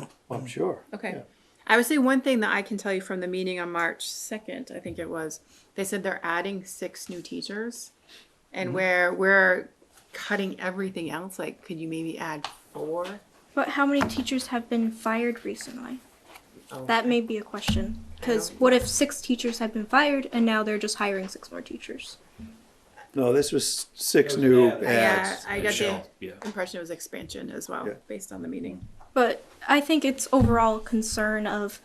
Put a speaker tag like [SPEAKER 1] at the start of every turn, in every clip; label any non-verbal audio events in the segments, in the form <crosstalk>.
[SPEAKER 1] Well, I'm sure.
[SPEAKER 2] Okay.
[SPEAKER 1] Yeah.
[SPEAKER 2] I would say one thing that I can tell you from the meeting on March 2nd, I think it was, they said they're adding six new teachers. And where we're cutting everything else, like, could you maybe add four?
[SPEAKER 3] But how many teachers have been fired recently?
[SPEAKER 2] Oh.
[SPEAKER 3] That may be a question. Because what if six teachers have been fired and now they're just hiring six more teachers?
[SPEAKER 1] No, this was six
[SPEAKER 4] Those
[SPEAKER 1] new
[SPEAKER 4] ads.
[SPEAKER 1] ads.
[SPEAKER 2] Yeah, I got the
[SPEAKER 4] Michelle, yeah.
[SPEAKER 2] impression it was expansion as well,
[SPEAKER 1] Yeah.
[SPEAKER 2] based on the meeting.
[SPEAKER 3] But I think it's overall a concern of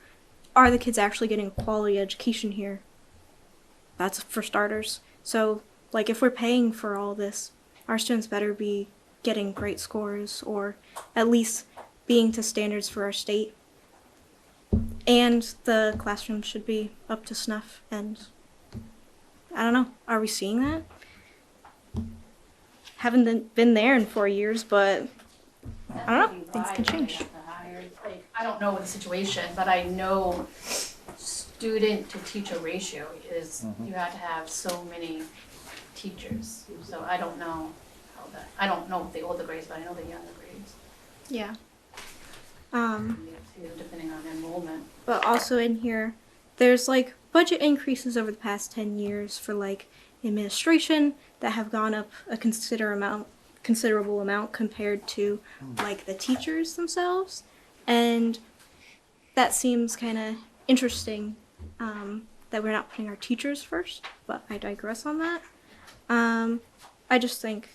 [SPEAKER 3] are the kids actually getting a quality education here? That's for starters. So, like, if we're paying for all this, our students better be getting great scores or at least being to standards for our state. And the classroom should be up to snuff. And I don't know, are we seeing that? Haven't been- been there in four years, but I don't know, things can change.
[SPEAKER 5] Like, Uh, I don't know the situation, but I know student to teacher ratio is, you had to have so many teachers. So I don't know how that, I don't know the older grades, but I know the younger grades,
[SPEAKER 3] Yeah. Um,
[SPEAKER 5] you know, depending on enrollment.
[SPEAKER 3] but also in here, there's like budget increases over the past 10 years for like administration that have gone up a consider amount, considerable amount compared to like the teachers themselves. And that seems kind of interesting um, that we're not putting our teachers first, but I digress on that. Um, I just think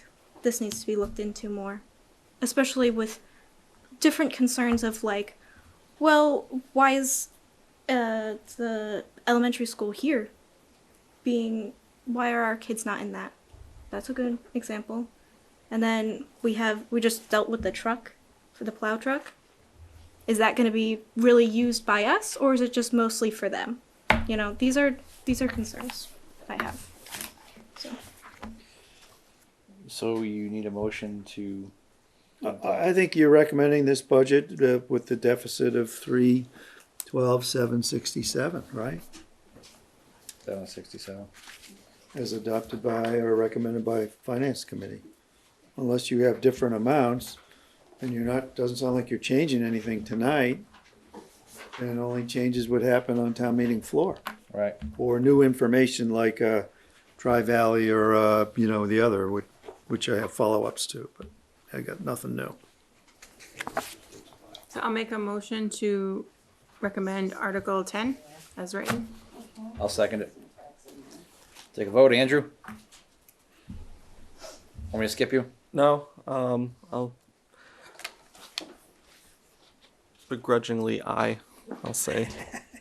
[SPEAKER 3] this needs to be looked into more, especially with different concerns of like well, why is uh, the elementary school here being? Why are our kids not in that? That's a good example. And then we have we just dealt with the truck for the plow truck. Is that going to be really used by us, or is it just mostly for them? You know, these are these are concerns I have.
[SPEAKER 6] So you need a motion to,
[SPEAKER 1] I, I think you're recommending this budget uh, with the deficit of three twelve seven sixty-seven, right?
[SPEAKER 6] seven sixty-seven.
[SPEAKER 1] As adopted by or recommended by Finance Committee. Unless you have different amounts, and you're not, doesn't sound like you're changing anything tonight. And only changes would happen on town meeting floor.
[SPEAKER 6] Right,
[SPEAKER 1] or new information like uh, Tri Valley or uh, you know the other, which, which I have follow-ups to, but I got nothing new.
[SPEAKER 2] So I'll make a motion to recommend Article 10 as written.
[SPEAKER 6] I'll second it. Take a vote, Andrew? Want me to skip you?
[SPEAKER 7] No, um, I'll begrudgingly I, I'll say.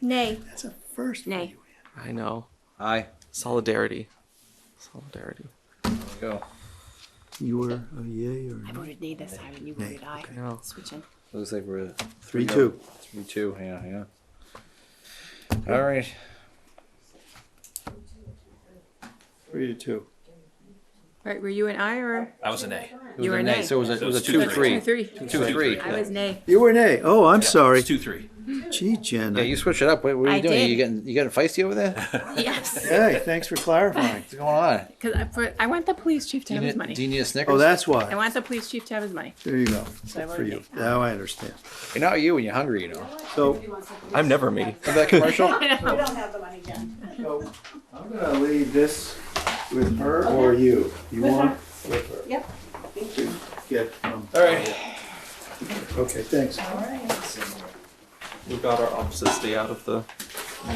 [SPEAKER 3] Nay,
[SPEAKER 1] That's a first.
[SPEAKER 2] Nay.
[SPEAKER 7] I know
[SPEAKER 6] Aye.
[SPEAKER 7] solidarity, solidarity.
[SPEAKER 6] There we go.
[SPEAKER 1] You were a yay or a nay?
[SPEAKER 2] voted nay this time and you voted aye.
[SPEAKER 7] I know.
[SPEAKER 2] Switching.
[SPEAKER 6] Looks like we're at
[SPEAKER 1] Three, two.
[SPEAKER 6] three two. Yeah, yeah. All right.
[SPEAKER 1] Three to two.
[SPEAKER 2] Right, were you an aye or?
[SPEAKER 4] I was an A.
[SPEAKER 6] It
[SPEAKER 2] You
[SPEAKER 6] was
[SPEAKER 2] were
[SPEAKER 6] a
[SPEAKER 2] an
[SPEAKER 6] nay,
[SPEAKER 2] A.
[SPEAKER 6] so it was a, it
[SPEAKER 4] So
[SPEAKER 6] was a
[SPEAKER 4] it's two,
[SPEAKER 6] two
[SPEAKER 4] three.
[SPEAKER 6] three.
[SPEAKER 2] Two, three.
[SPEAKER 6] Two three.
[SPEAKER 2] I was nay.
[SPEAKER 1] You were an A. Oh, I'm sorry.
[SPEAKER 4] It's two, three.
[SPEAKER 1] Gee, Jen.
[SPEAKER 6] Yeah, you switch it up. What, what are you
[SPEAKER 2] I
[SPEAKER 6] doing?
[SPEAKER 2] did.
[SPEAKER 6] You getting you getting feisty over
[SPEAKER 2] <laughs>
[SPEAKER 6] there? What's
[SPEAKER 2] Yes.
[SPEAKER 1] Hey, thanks for clarifying.
[SPEAKER 6] going on?
[SPEAKER 2] Because I, put- I want the police chief to
[SPEAKER 6] Do
[SPEAKER 2] have
[SPEAKER 6] you,
[SPEAKER 2] his
[SPEAKER 6] need, do you
[SPEAKER 2] money.
[SPEAKER 6] need a Snickers?
[SPEAKER 1] Oh, that's
[SPEAKER 2] I
[SPEAKER 1] why.
[SPEAKER 2] want the police chief to have his money.
[SPEAKER 1] There you go.
[SPEAKER 2] I
[SPEAKER 1] Good for
[SPEAKER 2] voted
[SPEAKER 1] you.
[SPEAKER 2] nay.
[SPEAKER 1] Now I understand.
[SPEAKER 6] You're not you when you're hungry. You know.
[SPEAKER 1] So,
[SPEAKER 7] I'm never me.
[SPEAKER 1] <laughs>
[SPEAKER 6] Remember that commercial?
[SPEAKER 1] so I'm gonna leave this with her or you. You want? With her.
[SPEAKER 5] Yep.
[SPEAKER 1] To Get from.
[SPEAKER 6] All right.
[SPEAKER 1] Okay, thanks.
[SPEAKER 7] We got our opposites stay out of the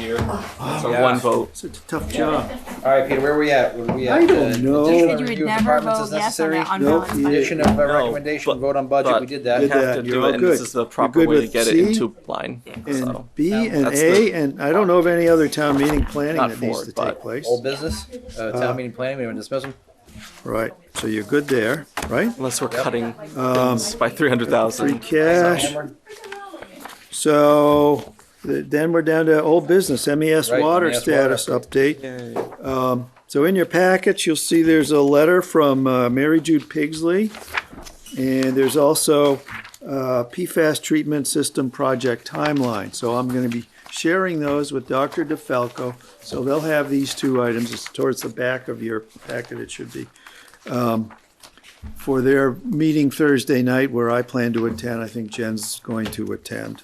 [SPEAKER 6] <sighs>
[SPEAKER 7] year. So
[SPEAKER 6] Yeah.
[SPEAKER 7] one vote.
[SPEAKER 1] It's a tough job.
[SPEAKER 6] All right, Peter, where are we at? Were we at?
[SPEAKER 1] I don't
[SPEAKER 6] uh,
[SPEAKER 1] know.
[SPEAKER 6] additional
[SPEAKER 1] You
[SPEAKER 2] said you would
[SPEAKER 6] review of
[SPEAKER 2] never
[SPEAKER 6] departments
[SPEAKER 2] vote
[SPEAKER 6] as
[SPEAKER 2] yes on
[SPEAKER 6] necessary?
[SPEAKER 2] that
[SPEAKER 1] Nope, E
[SPEAKER 2] unbalanced
[SPEAKER 1] you-
[SPEAKER 2] budget.
[SPEAKER 6] Addition of our
[SPEAKER 7] No,
[SPEAKER 6] recommendation,
[SPEAKER 7] but-
[SPEAKER 6] vote on budget,
[SPEAKER 7] but-
[SPEAKER 6] we did
[SPEAKER 7] We
[SPEAKER 1] Did
[SPEAKER 6] that.
[SPEAKER 7] have
[SPEAKER 1] that.
[SPEAKER 7] to
[SPEAKER 1] You're
[SPEAKER 7] do
[SPEAKER 1] all
[SPEAKER 7] it, and this
[SPEAKER 1] good.
[SPEAKER 7] is the
[SPEAKER 1] You're
[SPEAKER 7] proper
[SPEAKER 1] good
[SPEAKER 7] way to
[SPEAKER 1] with
[SPEAKER 7] get it
[SPEAKER 1] C?
[SPEAKER 7] into line.
[SPEAKER 1] And
[SPEAKER 7] So,
[SPEAKER 1] B
[SPEAKER 6] Yeah,
[SPEAKER 1] and
[SPEAKER 7] that's
[SPEAKER 1] A,
[SPEAKER 7] the-
[SPEAKER 1] and I don't know of any other town meeting planning
[SPEAKER 7] Not
[SPEAKER 1] that needs
[SPEAKER 7] forward,
[SPEAKER 1] to take
[SPEAKER 7] but-
[SPEAKER 1] place.
[SPEAKER 6] Old business, uh,
[SPEAKER 1] Uh,
[SPEAKER 6] town meeting planning, we haven't dismissed them.
[SPEAKER 1] Right, so you're good there, right?
[SPEAKER 7] unless we're cutting things by three hundred
[SPEAKER 1] Free
[SPEAKER 7] thousand.
[SPEAKER 1] cash,
[SPEAKER 6] Hammered?
[SPEAKER 1] so th- then we're down to old business, MES
[SPEAKER 6] Right,
[SPEAKER 1] water
[SPEAKER 6] MES
[SPEAKER 1] status
[SPEAKER 6] water.
[SPEAKER 1] update. Um, So in your packets, you'll see there's a letter from uh, Mary Jude Pigsley, and there's also uh, PFAS treatment system project timeline. So I'm going to be sharing those with Dr. DeFalco, so they'll have these two items, it's towards the back of your packet it should be, um, for their meeting Thursday night where I plan to attend, I think Jen's going to attend.